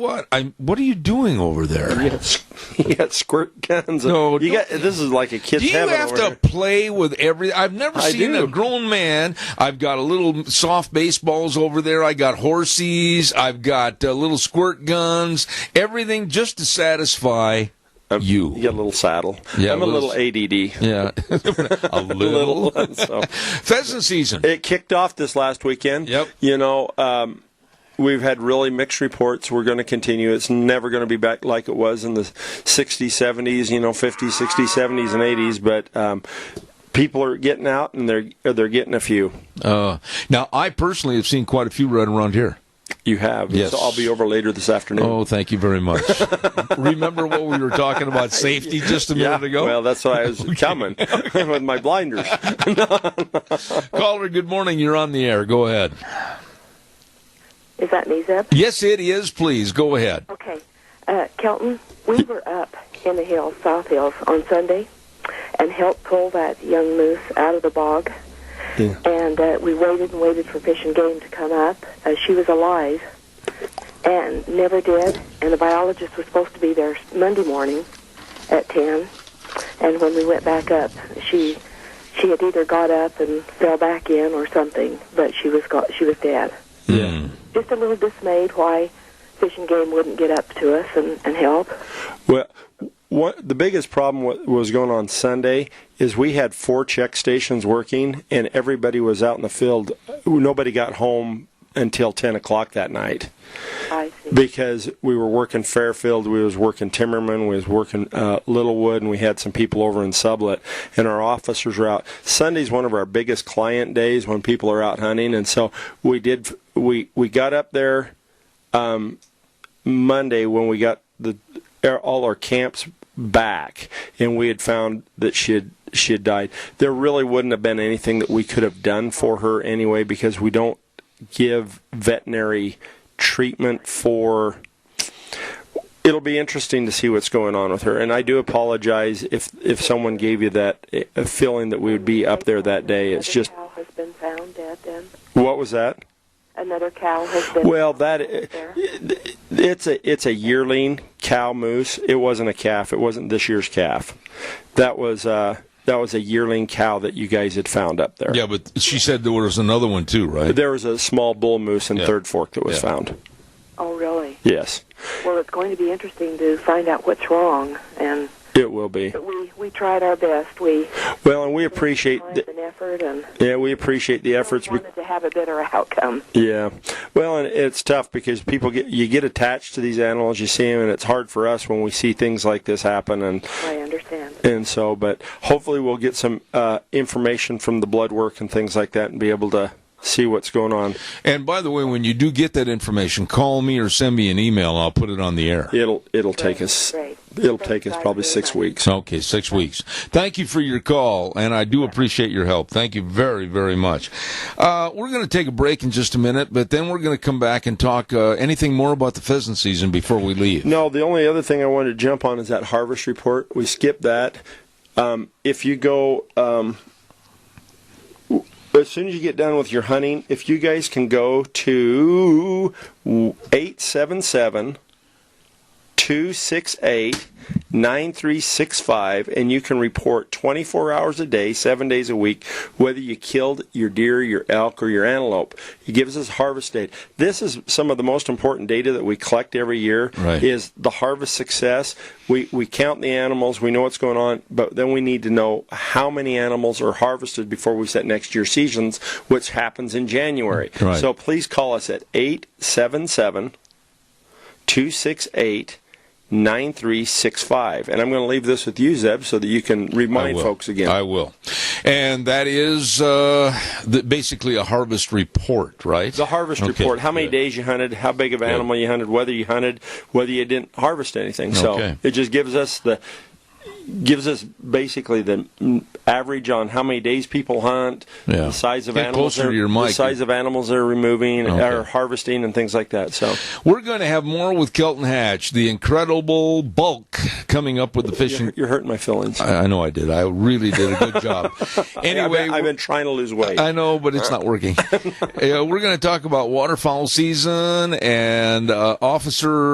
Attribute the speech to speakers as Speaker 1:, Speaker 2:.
Speaker 1: What? I what are you doing over there?
Speaker 2: You got, s- you got squirt guns.
Speaker 1: No,
Speaker 2: you
Speaker 1: don't-
Speaker 2: got this is like a kid's
Speaker 1: Do you
Speaker 2: heaven
Speaker 1: have
Speaker 2: over
Speaker 1: to
Speaker 2: here.
Speaker 1: play with every? I've never
Speaker 2: I
Speaker 1: seen
Speaker 2: do.
Speaker 1: a grown man. I've got a little soft baseballs over there. I got horsies. I've got uh, little squirt guns. Everything just to satisfy
Speaker 2: Um,
Speaker 1: you.
Speaker 2: You got a little saddle.
Speaker 1: Yeah,
Speaker 2: I'm a
Speaker 1: a little
Speaker 2: little ADD.
Speaker 1: Yeah, a little.
Speaker 2: Little. so
Speaker 1: Pheasant season.
Speaker 2: it kicked off this last weekend.
Speaker 1: Yep.
Speaker 2: You know, um, we've had really mixed reports. We're going to continue. It's never going to be back like it was in the 60s, 70s, you know, 50s, 60s, 70s, and 80s. But um, people are getting out and they're they're getting a few.
Speaker 1: Uh, now, I personally have seen quite a few right around here.
Speaker 2: You have.
Speaker 1: Yes.
Speaker 2: So I'll be over later this afternoon.
Speaker 1: Oh, thank you very much. Remember what we were talking about safety just a minute ago?
Speaker 2: Well, that's why I was coming with my blinders.
Speaker 1: Caller, good morning. You're on the air. Go ahead.
Speaker 3: Is that me, Zeb?
Speaker 1: Yes, it is. Please go ahead.
Speaker 3: Okay. Uh, Kelton, we were up in the hills, South Hills, on Sunday and helped pull that young moose out of the bog.
Speaker 2: Yeah.
Speaker 3: And uh, we waited and waited for Fish and Game to come up. Uh, she was alive and never did. And the biologist was supposed to be there Monday morning at 10. And when we went back up, she she had either got up and fell back in or something, but she was got, she was dead.
Speaker 1: Yeah.
Speaker 3: just a little dismayed why Fish and Game wouldn't get up to us and, and help.
Speaker 2: Well, what the biggest problem wa- was going on Sunday is we had four check stations working, and everybody was out in the field. Nobody got home until ten o'clock that night
Speaker 3: I see.
Speaker 2: because we were working Fairfield, we was working Timmerman, we was working uh, Littlewood, and we had some people over in Sublet, and our officers were out. Sunday's one of our biggest client days when people are out hunting, and so we did. We we got up there um, Monday when we got the all our camps back, and we had found that she had she had died. There really wouldn't have been anything that we could have done for her anyway because we don't give veterinary treatment for it'll be interesting to see what's going on with her and i do apologize if if someone gave you that uh, feeling that we would be up there that day it's
Speaker 3: Another
Speaker 2: just
Speaker 3: cow has been found dead. Then
Speaker 2: what was that
Speaker 3: another cow has been.
Speaker 2: well that
Speaker 3: there.
Speaker 2: it's a it's a yearling cow moose it wasn't a calf it wasn't this year's calf that was uh that was a yearling cow that you guys had found up there
Speaker 1: Yeah, but she said there was another one too, right?
Speaker 2: there was a small bull moose in
Speaker 1: Yeah.
Speaker 2: third fork that was
Speaker 1: Yeah.
Speaker 2: found
Speaker 3: oh really?
Speaker 2: yes
Speaker 3: Well, it's going to be interesting to find out what's wrong, and
Speaker 2: it will be
Speaker 3: but we we tried our best. We
Speaker 2: well and we appreciate
Speaker 3: time
Speaker 2: the,
Speaker 3: and effort, and
Speaker 2: yeah we appreciate the efforts
Speaker 3: we
Speaker 2: be-
Speaker 3: wanted to have a better outcome.
Speaker 2: Yeah, well, and it's tough because people get you get attached to these animals. You see them, and it's hard for us when we see things like this happen. And
Speaker 3: I understand.
Speaker 2: and so, but hopefully, we'll get some uh, information from the blood work and things like that, and be able to see what's going on.
Speaker 1: And by the way, when you do get that information, call me or send me an email. I'll put it on the air.
Speaker 2: It'll it'll take us
Speaker 3: Great.
Speaker 2: it'll
Speaker 3: Thank
Speaker 2: take
Speaker 3: you
Speaker 2: us
Speaker 3: guys
Speaker 2: probably
Speaker 3: very
Speaker 2: six
Speaker 3: much.
Speaker 2: weeks.
Speaker 1: Okay, six weeks. Thank you for your call, and I do appreciate your help. Thank you very, very much. Uh, we're going to take a break in just a minute, but then we're going to come back and talk uh, anything more about the pheasant season before we leave.
Speaker 2: No, the only other thing I wanted to jump on is that harvest report. We skipped that. Um, if you go, um, w- as soon as you get done with your hunting, if you guys can go to 877 268 9365 and you can report 24 hours a day, seven days a week, whether you killed your deer, your elk, or your antelope. It gives us harvest data. This is some of the most important data that we collect every year
Speaker 1: Right.
Speaker 2: is the harvest success. We we count the animals, we know what's going on, but then we need to know how many animals are harvested before we set next year's seasons, which happens in January.
Speaker 1: Right.
Speaker 2: So please call us at 877- 268 9365. And I'm going to leave this with you, Zeb, so that you can
Speaker 1: I
Speaker 2: remind
Speaker 1: will.
Speaker 2: folks again.
Speaker 1: I will. And that is uh, the, basically a harvest report, right?
Speaker 2: the harvest
Speaker 1: Okay,
Speaker 2: report how many
Speaker 1: good.
Speaker 2: days you hunted, how big of an
Speaker 1: Good.
Speaker 2: animal you hunted, whether you hunted, whether you didn't harvest anything. So
Speaker 1: Okay.
Speaker 2: it just gives us the. Gives us basically the mm, average on how many days people hunt,
Speaker 1: Yeah.
Speaker 2: the size of
Speaker 1: Get
Speaker 2: animals,
Speaker 1: closer to
Speaker 2: they're-
Speaker 1: your
Speaker 2: the
Speaker 1: mic.
Speaker 2: size of animals they're removing
Speaker 1: Okay.
Speaker 2: or harvesting, and things like that. So
Speaker 1: We're going to have more with Kelton Hatch, the incredible bulk coming up with the fishing.
Speaker 2: you're, you're hurting my feelings.
Speaker 1: I I know I did. I really did a good job.
Speaker 2: I've,
Speaker 1: Anyway,
Speaker 2: been, I've been trying to lose weight.
Speaker 1: I know, but it's not working. Uh, we're going to talk about waterfowl season and uh, officer